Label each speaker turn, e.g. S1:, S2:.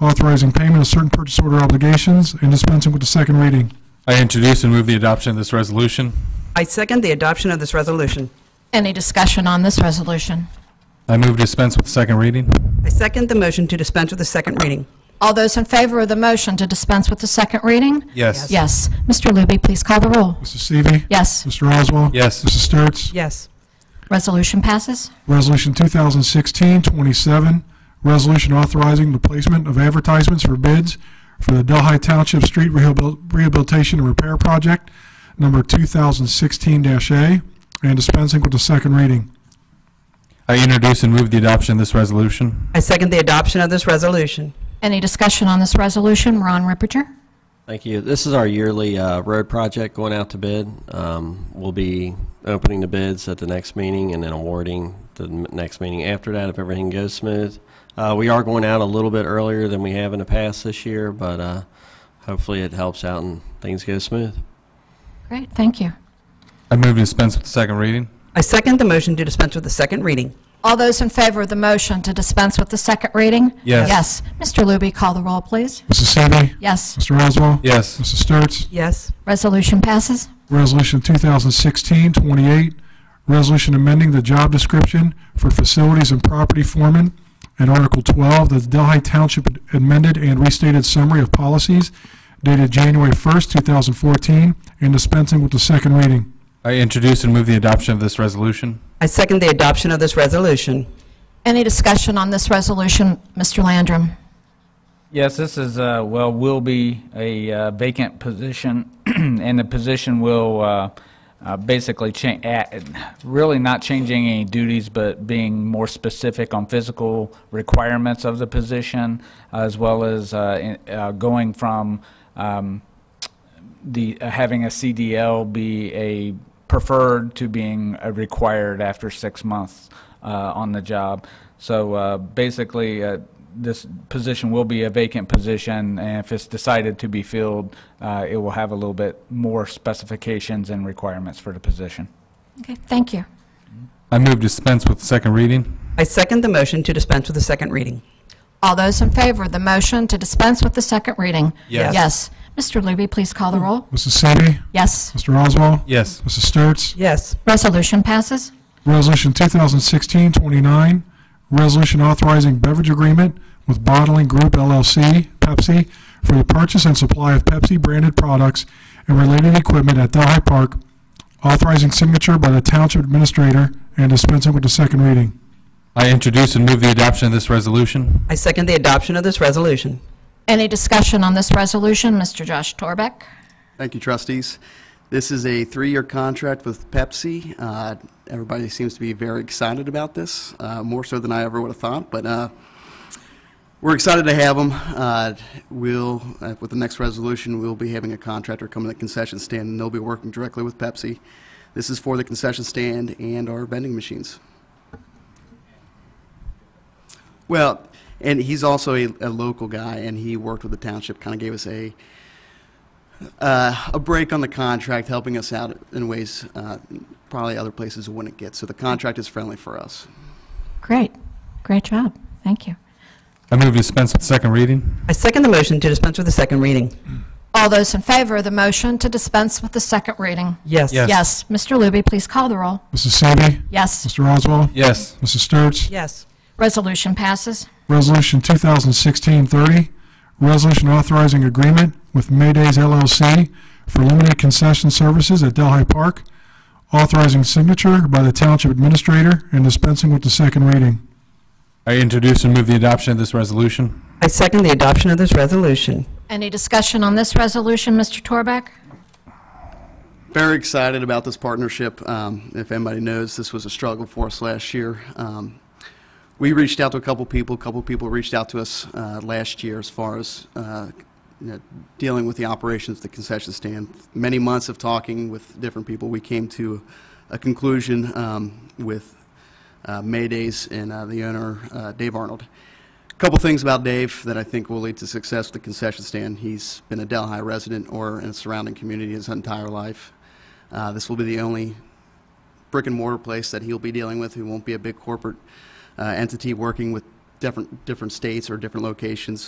S1: authorizing payment of certain purchase order obligations, and dispensing with the second reading.
S2: I introduce and move the adoption of this resolution.
S3: I second the adoption of this resolution.
S4: Any discussion on this resolution?
S2: I move dispense with second reading.
S3: I second the motion to dispense with the second reading.
S4: All those in favor of the motion to dispense with the second reading?
S2: Yes.
S4: Yes. Mr. Looby, please call the roll.
S1: Mrs. Seavey.
S4: Yes.
S1: Mr. Oswald.
S2: Yes.
S1: Mrs. Sturts.
S3: Yes.
S4: Resolution passes.
S1: Resolution 2016-27, resolution authorizing the placement of advertisements for bids for the Delhi Township Street Rehabil- Rehabilitation and Repair Project, number 2016-A, and dispensing with the second reading.
S2: I introduce and move the adoption of this resolution.
S3: I second the adoption of this resolution.
S4: Any discussion on this resolution? Ron Ripinger?
S5: Thank you. This is our yearly uh, road project going out to bid. Um, We'll be opening the bids at the next meeting and then awarding the m- next meeting after that if everything goes smooth. Uh, We are going out a little bit earlier than we have in the past this year, but uh, hopefully it helps out and things go smooth.
S4: Great, thank you.
S2: I move dispense with the second reading.
S3: I second the motion to dispense with the second reading.
S4: All those in favor of the motion to dispense with the second reading?
S2: Yes.
S4: Yes. Mr. Looby, call the roll, please.
S1: Mrs. Seavey.
S4: Yes.
S1: Mr. Oswald.
S2: Yes.
S1: Mrs. Sturts.
S3: Yes.
S4: Resolution passes.
S1: Resolution 2016-28, resolution amending the job description for facilities and property foreman and Article 12, the Delhi Township amended and restated summary of policies dated January 1st, 2014, and dispensing with the second reading.
S2: I introduce and move the adoption of this resolution.
S3: I second the adoption of this resolution.
S4: Any discussion on this resolution? Mr. Landrum?
S6: Yes, this is, uh, well, will be a uh, vacant position, and the position will uh, uh, basically change, really not changing any duties, but being more specific on physical requirements of the position, as well as uh, in- uh, going from um, the, uh, having a CDL be a preferred to being a required after six months uh, on the job. So uh, basically, uh, this position will be a vacant position, and if it's decided to be filled, uh, it will have a little bit more specifications and requirements for the position.
S4: Okay, thank you.
S2: I move dispense with the second reading.
S3: I second the motion to dispense with the second reading.
S4: All those in favor of the motion to dispense with the second reading?
S2: Yes.
S4: Yes. Mr. Looby, please call the roll.
S1: Mrs. Seavey.
S4: Yes.
S1: Mr. Oswald.
S2: Yes.
S1: Mrs. Sturts.
S3: Yes.
S4: Resolution passes.
S1: Resolution 2016-29, resolution authorizing beverage agreement with Bottling Group LLC, Pepsi, for the purchase and supply of Pepsi-branded products and related equipment at Delhi Park, authorizing signature by the Township Administrator and dispensing with the second reading.
S2: I introduce and move the adoption of this resolution.
S3: I second the adoption of this resolution.
S4: Any discussion on this resolution? Mr. Josh Torbeck?
S7: Thank you, trustees. This is a three-year contract with Pepsi. Uh, Everybody seems to be very excited about this, uh, more so than I ever would have thought, but uh, we're excited to have them. Uh, We'll, uh, with the next resolution, we'll be having a contractor come to the concession stand, and they'll be working directly with Pepsi. This is for the concession stand and our vending machines. Well, and he's also a a local guy, and he worked with the township, kind of gave us a uh, a break on the contract, helping us out in ways uh, probably other places wouldn't get. So the contract is friendly for us.
S4: Great. Great job. Thank you.
S2: I move dispense with the second reading.
S3: I second the motion to dispense with the second reading.
S4: All those in favor of the motion to dispense with the second reading?
S3: Yes.
S2: Yes.
S4: Yes. Mr. Looby, please call the roll.
S1: Mrs. Seavey.
S4: Yes.
S1: Mr. Oswald.
S2: Yes.
S1: Mrs. Sturts.
S3: Yes.
S4: Resolution passes.
S1: Resolution 2016-30, resolution authorizing agreement with Maydays LLC for limited concession services at Delhi Park, authorizing signature by the Township Administrator and dispensing with the second reading.
S2: I introduce and move the adoption of this resolution.
S3: I second the adoption of this resolution.
S4: Any discussion on this resolution, Mr. Torbeck?
S7: Very excited about this partnership. Um, if anybody knows, this was a struggle for us last year. Um, we reached out to a couple people. A couple people reached out to us uh, last year as far as uh, you know, dealing with the operations of the concession stand. Many months of talking with different people, we came to a conclusion um, with uh, Maydays and uh, the owner, uh, Dave Arnold. Couple things about Dave that I think will lead to success with the concession stand. He's been a Delhi resident or in a surrounding community his entire life. Uh, this will be the only brick and mortar place that he'll be dealing with. He won't be a big corporate uh, entity working with different different states or different locations.